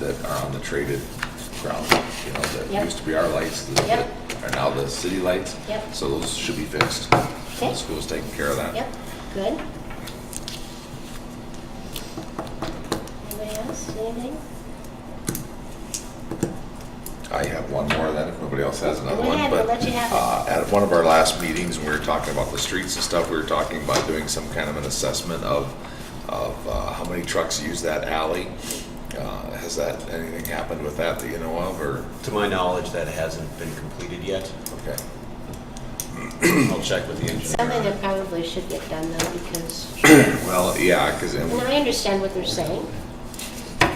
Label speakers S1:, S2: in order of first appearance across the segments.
S1: that are on the traded ground, you know, that
S2: Yep.
S1: used to be our lights, that
S2: Yep.
S1: are now the city lights.
S2: Yep.
S1: So those should be fixed. So
S2: Okay.
S1: The school's taking care of that.
S2: Yep, good. Anybody else, anything?
S1: I have one more then, if nobody else has another
S2: Go
S1: one.
S2: ahead,
S1: but,
S2: I'll let you have it.
S1: uh, At one of our last meetings, when we were talking about the streets and stuff, we were talking about doing some kind of an assessment of, of uh, how many trucks use that alley. Uh, Has that, anything happened with that that you know of, or,
S3: To my knowledge, that hasn't been completed yet.
S1: okay?
S3: I'll check with the
S2: Something
S3: engineer.
S2: that probably should get done though, because,
S1: Well, yeah, because,
S2: and I understand what they're saying.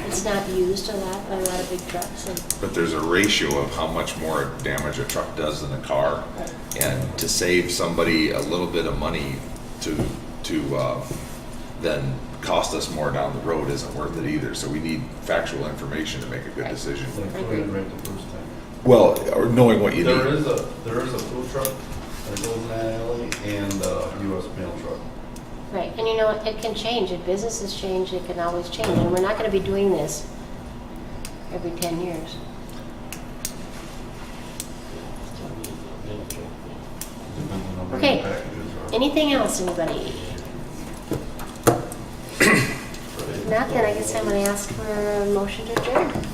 S2: It's not used a lot by a lot of big trucks and,
S1: but there's a ratio of how much more damage a truck does than a car. And to save somebody a little bit of money to, to, uh, then cost us more down the road isn't worth it either. So we need factual information to make a good decision.
S4: Like doing it right the first time.
S1: Well, or knowing what you
S4: There
S1: need.
S4: is a, there is a food truck that goes in that alley and a US mail truck.
S2: right, and you know, it can change, if businesses change, it can always change, and we're not gonna be doing this every ten years.
S4: Depends on how many
S2: Okay.
S4: packages are.
S2: Anything else, anybody? Not that I guess I'm gonna ask for a motion to adjourn.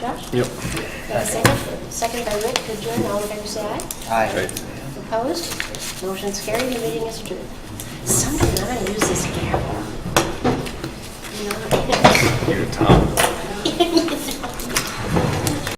S2: Josh? Yep. Second, second by Rick, to adjourn, all in favor, say aye.
S5: Aye.
S2: Opposed? Motion's carried, the meeting is adjourned. Somebody ought to use this gavel. You know?
S1: You're Tom.
S2: Yeah.